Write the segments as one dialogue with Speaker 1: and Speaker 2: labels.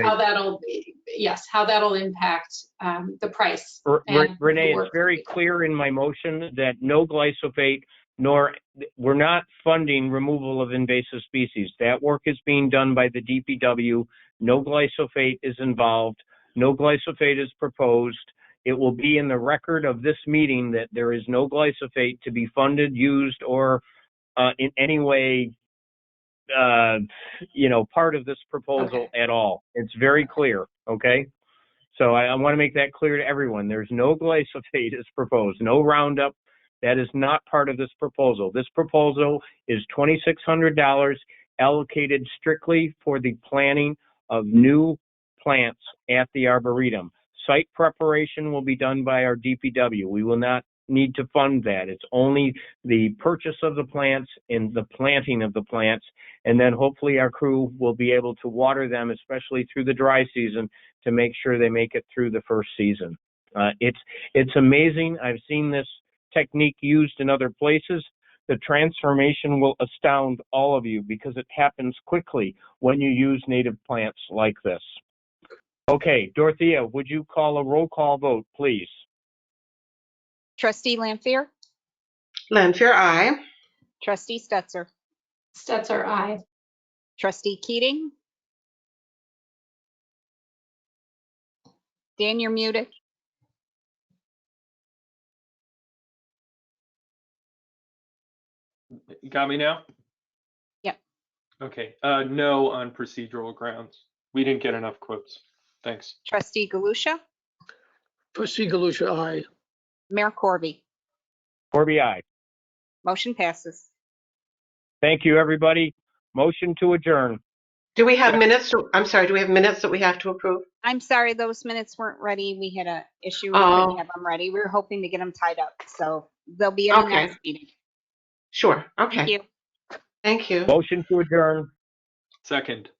Speaker 1: how that'll, be- yes, how that'll impact um, the price.
Speaker 2: R-
Speaker 1: and
Speaker 2: R- Renee,
Speaker 1: the
Speaker 2: it's
Speaker 1: work.
Speaker 2: very clear in my motion that no glyphosate nor, we're not funding removal of invasive species. That work is being done by the DPW. No glyphosate is involved. No glyphosate is proposed. It will be in the record of this meeting that there is no glyphosate to be funded, used, or uh, in any way, uh, you know, part of this proposal at all. It's very clear, okay? So I, I want to make that clear to everyone. There's no glyphosate is proposed, no Roundup. That is not part of this proposal. This proposal is $2,600 allocated strictly for the planting of new plants at the Arboretum. Site preparation will be done by our DPW. We will not need to fund that. It's only the purchase of the plants and the planting of the plants. And then hopefully our crew will be able to water them, especially through the dry season, to make sure they make it through the first season. Uh, it's it's amazing. I've seen this technique used in other places. The transformation will astound all of you because it happens quickly when you use native plants like this. Okay, Dorothea, would you call a roll call vote, please?
Speaker 3: Trustee Lampier,
Speaker 4: Lanfear, aye.
Speaker 3: trustee Stetser,
Speaker 1: Stetser, aye.
Speaker 3: trustee Keating. Dan, you're muted.
Speaker 5: You got me now?
Speaker 3: Yep.
Speaker 5: Okay, uh, no on procedural grounds. We didn't get enough quotes. Thanks.
Speaker 3: Trustee Galusha,
Speaker 6: Trustee Galusha, aye.
Speaker 3: Mayor Corby.
Speaker 2: Corby, aye.
Speaker 3: Motion passes.
Speaker 2: Thank you, everybody. Motion to adjourn.
Speaker 4: Do we have minutes, to- I'm sorry, do we have minutes that we have to approve?
Speaker 3: I'm sorry, those minutes weren't ready. We had a issue. We couldn't
Speaker 4: Oh.
Speaker 3: have them ready. We were hoping to get them tied up, so they'll be in the
Speaker 4: Okay.
Speaker 3: next meeting.
Speaker 4: Sure,
Speaker 3: Thank
Speaker 4: okay,
Speaker 3: you.
Speaker 4: thank you.
Speaker 2: Motion to adjourn.
Speaker 5: Second,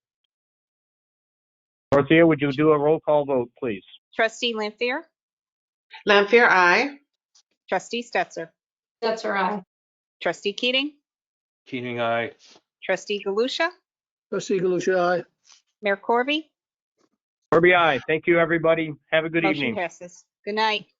Speaker 2: Dorothea, would you do a roll call vote, please?
Speaker 3: Trustee Lampier,
Speaker 4: Lanfear, aye.
Speaker 3: trustee Stetser,
Speaker 1: Stetser, aye.
Speaker 3: trustee Keating,
Speaker 5: Keating, aye.
Speaker 3: trustee Galusha,
Speaker 6: Trustee Galusha, aye.
Speaker 3: Mayor Corby.
Speaker 2: Corby, aye. Thank you, everybody. Have a good
Speaker 3: Motion
Speaker 2: evening.
Speaker 3: Passes. Good night.